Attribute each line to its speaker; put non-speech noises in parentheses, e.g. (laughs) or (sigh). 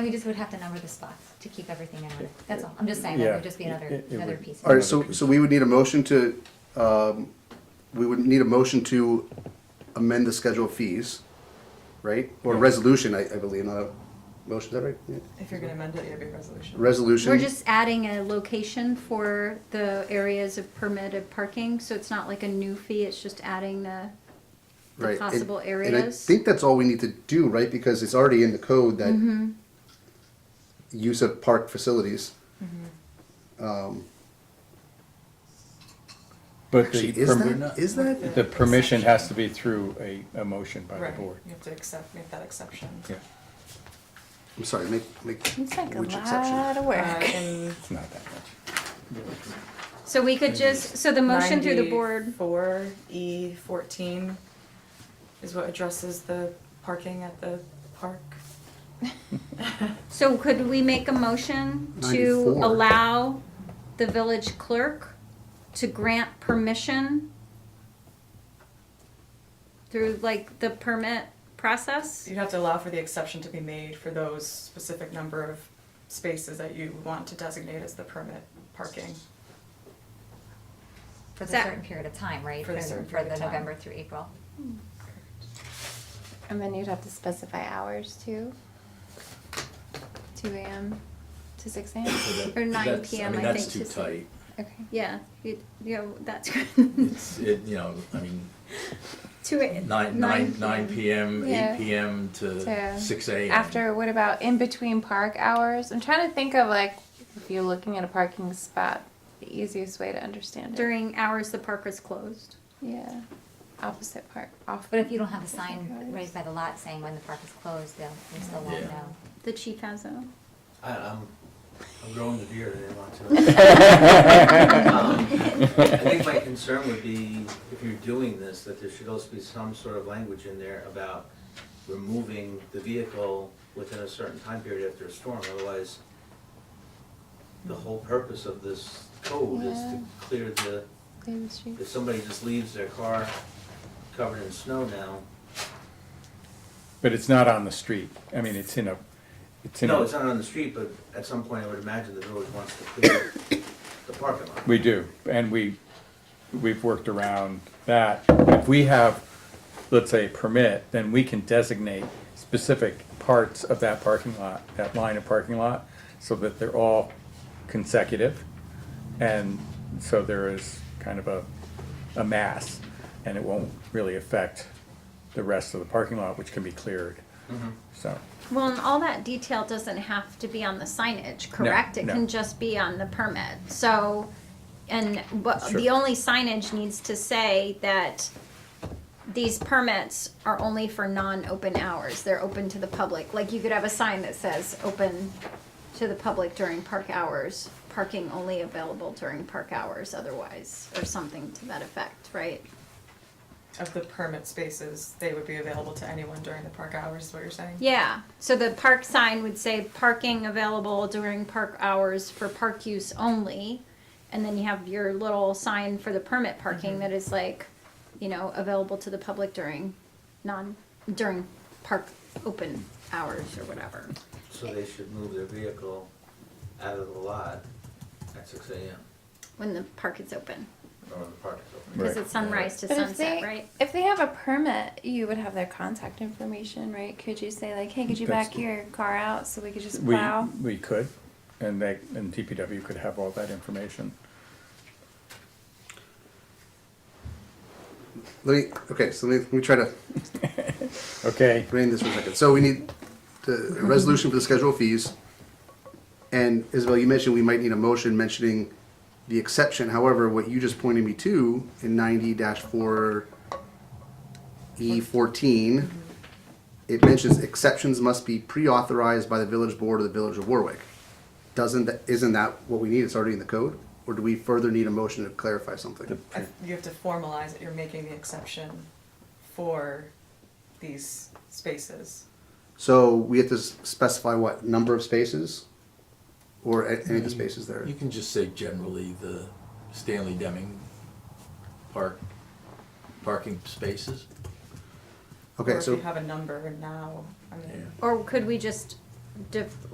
Speaker 1: And we just would have to number the spots to keep everything in order. That's all. I'm just saying, that
Speaker 2: Yeah.
Speaker 1: would just be another,
Speaker 2: It- it
Speaker 1: another
Speaker 2: would-
Speaker 1: piece.
Speaker 3: All right, so, so we would need a motion to, um, we would need a motion to amend the schedule of fees, right? Or resolution, I, I believe, not a motion, is that right? Yeah.
Speaker 4: If you're gonna amend it, you have your resolution.
Speaker 3: Resolution.
Speaker 5: We're just adding a location for the areas of permitted parking, so it's not like a new fee, it's just adding the, the
Speaker 3: right, and-
Speaker 5: possible
Speaker 3: And I
Speaker 5: areas.
Speaker 3: think that's all we need to do, right? Because it's already in the code
Speaker 6: Mm-hmm.
Speaker 3: that use of park facilities.
Speaker 2: But
Speaker 3: Actually,
Speaker 2: the,
Speaker 3: is
Speaker 2: permi-
Speaker 3: that, is that?
Speaker 2: the permission has to be through a, a motion by the
Speaker 4: Right,
Speaker 2: board.
Speaker 4: you have to accept, make that exception.
Speaker 2: Yeah,
Speaker 3: I'm sorry, make, make,
Speaker 6: It's like a
Speaker 3: which exception?
Speaker 6: lot of
Speaker 4: Uh,
Speaker 5: (laughs)
Speaker 6: work.
Speaker 4: in
Speaker 2: it's not that much.
Speaker 5: So we could just, so the motion through the board,
Speaker 4: Four E fourteen is what addresses the parking at the park.
Speaker 5: so could we make a motion to
Speaker 3: 94.
Speaker 5: allow the village clerk to grant permission through like the permit process?
Speaker 4: You'd have to allow for the exception to be made for those specific number of spaces that you want to designate as the permit parking.
Speaker 1: For the
Speaker 5: Zach.
Speaker 1: certain period of time, right?
Speaker 4: For the certain period of
Speaker 1: For the
Speaker 4: time.
Speaker 1: November through April.
Speaker 6: And then you'd have to specify hours too. Two AM to six AM,
Speaker 5: Or nine
Speaker 7: That's-
Speaker 5: PM,
Speaker 7: mean,
Speaker 5: I think.
Speaker 7: That's too
Speaker 5: to-
Speaker 7: tight.
Speaker 6: okay.
Speaker 5: Yeah, you, you know, that's good. (laughs)
Speaker 7: It's, it, you know, I mean,
Speaker 5: Two a-
Speaker 7: nine, nine, nine PM,
Speaker 6: Yeah.
Speaker 7: eight PM
Speaker 6: To-
Speaker 7: to six AM.
Speaker 6: After, what about in between park hours? I'm trying to think of like, if you're looking at a parking spot, the easiest way to understand it.
Speaker 5: During hours the park is closed.
Speaker 6: Yeah, opposite park, off.
Speaker 1: But if you don't have a sign
Speaker 6: Hours.
Speaker 1: raised by the lot saying when the park is closed, they'll, they still won't
Speaker 7: Yeah.
Speaker 1: know.
Speaker 5: The chief has a.
Speaker 8: I, I'm, I'm growing the beard, I didn't want to. Um, I think my concern would be, if you're doing this, that there should also be some sort of language in there about removing the vehicle within a certain time period after a storm, otherwise the whole purpose of this code is
Speaker 6: Yeah.
Speaker 8: to clear the,
Speaker 6: Clear the street.
Speaker 8: if somebody just leaves their car covered in snow now,
Speaker 2: But it's not on the street. I mean, it's in a, it's in
Speaker 8: no, it's
Speaker 2: a,
Speaker 8: not on the street, but at some point I would imagine the village wants to clear the parking lot.
Speaker 2: we do, and we, we've worked around that. If we have, let's say, a permit, then we can designate specific parts of that parking lot, that line of parking lot, so that they're all consecutive. And so there is kind of a, a mass, and it won't really affect the rest of the parking lot, which can be cleared. So,
Speaker 5: Well, and all that detail doesn't have to be on the signage, correct? It
Speaker 2: no.
Speaker 5: can just be on the permit. So, and what,
Speaker 2: Sure.
Speaker 5: the only signage needs to say that these permits are only for non-open hours. They're open to the public. Like you could have a sign that says, open to the public during park hours, parking only available during park hours otherwise, or something to that effect, right?
Speaker 4: Of the permit spaces, they would be available to anyone during the park hours, is what you're saying?
Speaker 5: Yeah, so the park sign would say parking available during park hours for park use only. And then you have your little sign for the permit parking
Speaker 6: Mm-hmm.
Speaker 5: that is like, you know, available to the public during non, during park open hours or whatever.
Speaker 8: So they should move their vehicle out of the lot at six AM,
Speaker 5: When the park is open,
Speaker 8: or when the park is open.
Speaker 5: because
Speaker 2: Right.
Speaker 5: it's sunrise to
Speaker 6: But if
Speaker 5: sunset,
Speaker 6: they,
Speaker 5: right?
Speaker 6: if they have a permit, you would have their contact information, right? Could you say like, hey, could you
Speaker 2: That's-
Speaker 6: back your car out so we could just
Speaker 2: we,
Speaker 6: plow?
Speaker 2: we could, and they, and DPW could have all that information.
Speaker 3: Let me, okay, so let me, let me try to
Speaker 2: Okay,
Speaker 3: rein this for a second. So we need the a resolution for the schedule of fees. And Isabel, you mentioned we might need a motion mentioning the exception. However, what you just pointed me to in ninety four E fourteen, it mentions exceptions must be pre-authorized by the village board of the village of Warwick. Doesn't, that isn't that what we need? It's already in the code? Or do we further need a motion to clarify something?
Speaker 4: I- You have to formalize that you're making the exception for these spaces.
Speaker 3: So we have to s- specify what, number of spaces? Or a- any of the spaces there?
Speaker 7: Um, You can just say generally the Stanley Deming park, parking spaces.
Speaker 3: Okay,
Speaker 4: Or
Speaker 3: so.
Speaker 4: if you have a number now, I mean.
Speaker 7: Yeah.
Speaker 5: Or could we just def-